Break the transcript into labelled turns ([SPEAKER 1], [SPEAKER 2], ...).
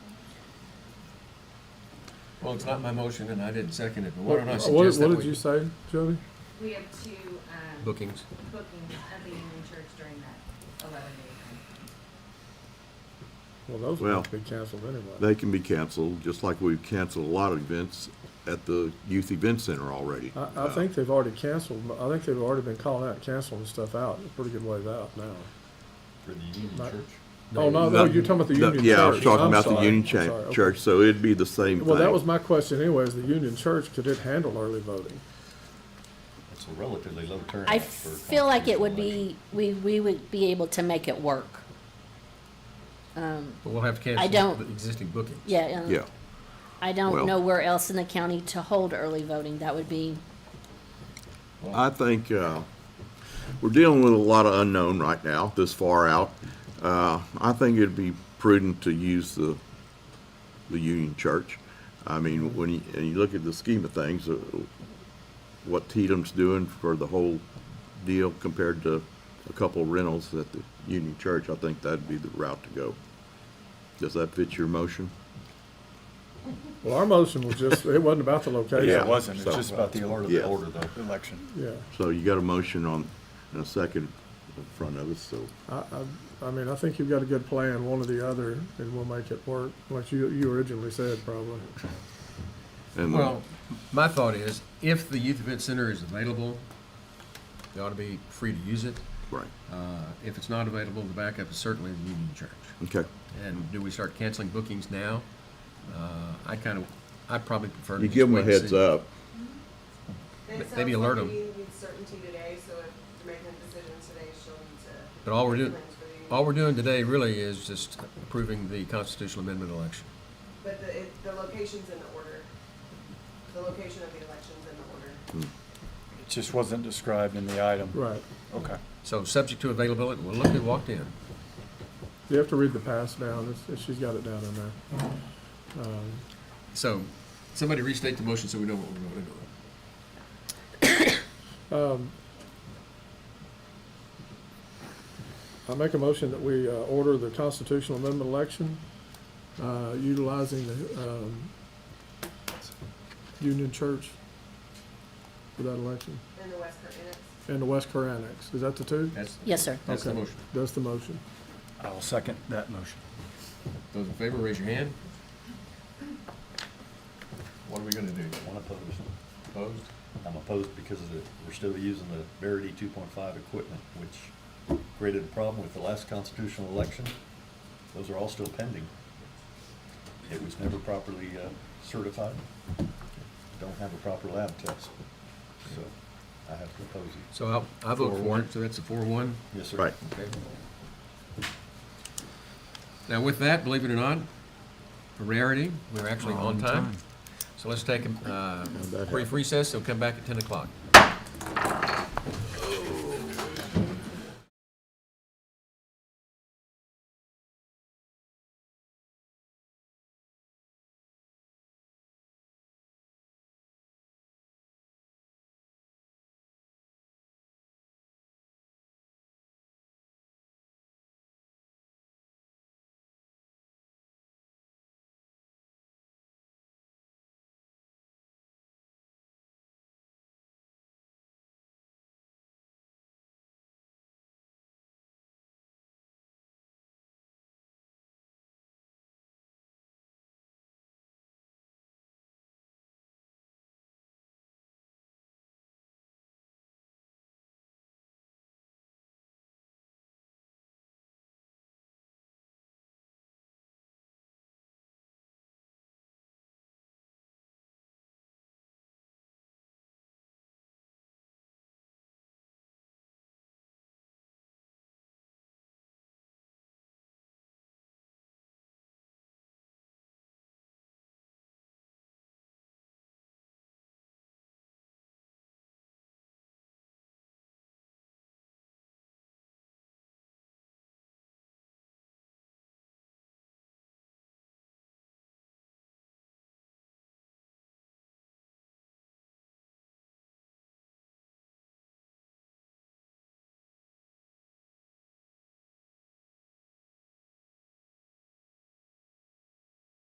[SPEAKER 1] Well, it's not my motion and I didn't second it, but why don't I
[SPEAKER 2] What-
[SPEAKER 1] suggest that
[SPEAKER 2] What did you
[SPEAKER 1] we,
[SPEAKER 2] say, Jody?
[SPEAKER 3] We have two, um,
[SPEAKER 4] bookings.
[SPEAKER 3] bookings at the Union Church during that eleven day
[SPEAKER 2] Well, those
[SPEAKER 5] Well,
[SPEAKER 2] will be canceled anyway.
[SPEAKER 5] They can be canceled, just like we've canceled a lot of events at the Youth Event Center already.
[SPEAKER 2] I, I think they've already canceled, I think they've already been calling out, canceling stuff out, a pretty good ways out now.
[SPEAKER 6] For the Union
[SPEAKER 2] Not-
[SPEAKER 6] Church?
[SPEAKER 2] Oh, no, no, you're talking about the
[SPEAKER 5] No,
[SPEAKER 2] Union Church.
[SPEAKER 5] Yeah, I was talking
[SPEAKER 2] I'm
[SPEAKER 5] about the
[SPEAKER 2] sorry.
[SPEAKER 5] Union
[SPEAKER 2] I'm
[SPEAKER 5] cha-
[SPEAKER 2] sorry. Okay.
[SPEAKER 5] Church, so it'd be the same thing.
[SPEAKER 2] Well, that was my question anyway, is the Union Church, could it handle early voting?
[SPEAKER 6] It's a relatively low turnout.
[SPEAKER 7] I
[SPEAKER 6] for a
[SPEAKER 7] feel like it would
[SPEAKER 6] constitutional
[SPEAKER 7] be, we, we would be able to make it work. Um,
[SPEAKER 4] But we'll have to cancel.
[SPEAKER 7] I don't-
[SPEAKER 4] the Existing bookings.
[SPEAKER 7] yeah. um,
[SPEAKER 5] Yeah,
[SPEAKER 7] I
[SPEAKER 5] well-
[SPEAKER 7] don't know where else in the county to hold early voting. That would be,
[SPEAKER 5] I think, uh, we're dealing with a lot of unknown right now, this far out. Uh, I think it'd be prudent to use the, the Union Church. I mean, when you, and you look at the scheme of things, uh, what Tatum's doing for the whole deal compared to a couple rentals at the Union Church, I think that'd be the route to go. Does that fit your motion?
[SPEAKER 2] Well, our motion was just, it wasn't about the location.
[SPEAKER 5] Yeah.
[SPEAKER 8] It wasn't, it's
[SPEAKER 5] so-
[SPEAKER 8] just about the
[SPEAKER 6] Part
[SPEAKER 8] order
[SPEAKER 6] of
[SPEAKER 8] of
[SPEAKER 5] Yeah.
[SPEAKER 6] the order though.
[SPEAKER 8] the election.
[SPEAKER 2] Yeah,
[SPEAKER 5] So you got a motion on, and a second in front of us, so.
[SPEAKER 2] I, I, I mean, I think you've got a good plan, one or the other, and we'll make it work, like you, you originally said, probably.
[SPEAKER 5] and
[SPEAKER 4] Well, my thought is, if the youth event center is available, they ought to be free to use it.
[SPEAKER 5] Right,
[SPEAKER 4] Uh, If it's not available, the backup is certainly the Union Church.
[SPEAKER 5] okay.
[SPEAKER 4] And do we start canceling bookings now? Uh, I kind of, I probably prefer to.
[SPEAKER 5] You
[SPEAKER 4] just
[SPEAKER 5] give them a
[SPEAKER 4] wait and
[SPEAKER 5] heads
[SPEAKER 4] see.
[SPEAKER 5] up.
[SPEAKER 4] Maybe
[SPEAKER 3] That sounds
[SPEAKER 4] alert
[SPEAKER 3] like
[SPEAKER 4] 'em.
[SPEAKER 3] you need certainty today, so if you're making a decision today, she'll need to.
[SPEAKER 4] But all we're doing,
[SPEAKER 3] plans for the union.
[SPEAKER 4] all we're doing today really is just approving the constitutional amendment election.
[SPEAKER 3] But the, it, the location's in the order. The location of the election's in the order.
[SPEAKER 8] It just wasn't described in the item.
[SPEAKER 2] Right.
[SPEAKER 8] Okay.
[SPEAKER 4] So subject to availability, well, look who walked in.
[SPEAKER 2] You have to read the pass down, It's- it's- she's got it down in there. Um,
[SPEAKER 4] So, somebody restate the motion so we know what we're voting on.
[SPEAKER 2] Um, I make a motion that we uh, order the constitutional amendment election uh, utilizing the um, Union Church for that election
[SPEAKER 3] In the West Curtin, it's
[SPEAKER 2] and the West Core Annex. Is that the two?
[SPEAKER 4] That's,
[SPEAKER 7] yes, sir.
[SPEAKER 4] that's the
[SPEAKER 2] Okay.
[SPEAKER 4] motion.
[SPEAKER 2] That's the motion.
[SPEAKER 8] I'll second that motion.
[SPEAKER 4] Those in favor, raise your hand.
[SPEAKER 1] what are we gonna do?
[SPEAKER 6] One opposed.
[SPEAKER 1] Opposed?
[SPEAKER 6] I'm opposed because of the, we're still using the Verity two point five equipment, which created a problem with the last constitutional election. Those are all still pending. It was never properly uh, certified. Don't have a proper lab test. So I have to oppose it.
[SPEAKER 4] So I'll- I vote for it, so that's a four-one.
[SPEAKER 6] Yes, sir.
[SPEAKER 5] Right.
[SPEAKER 4] Okay. Now with that, believe it or not, a rarity, we're actually on time. So let's take a uh, brief recess, we'll come back at ten o'clock.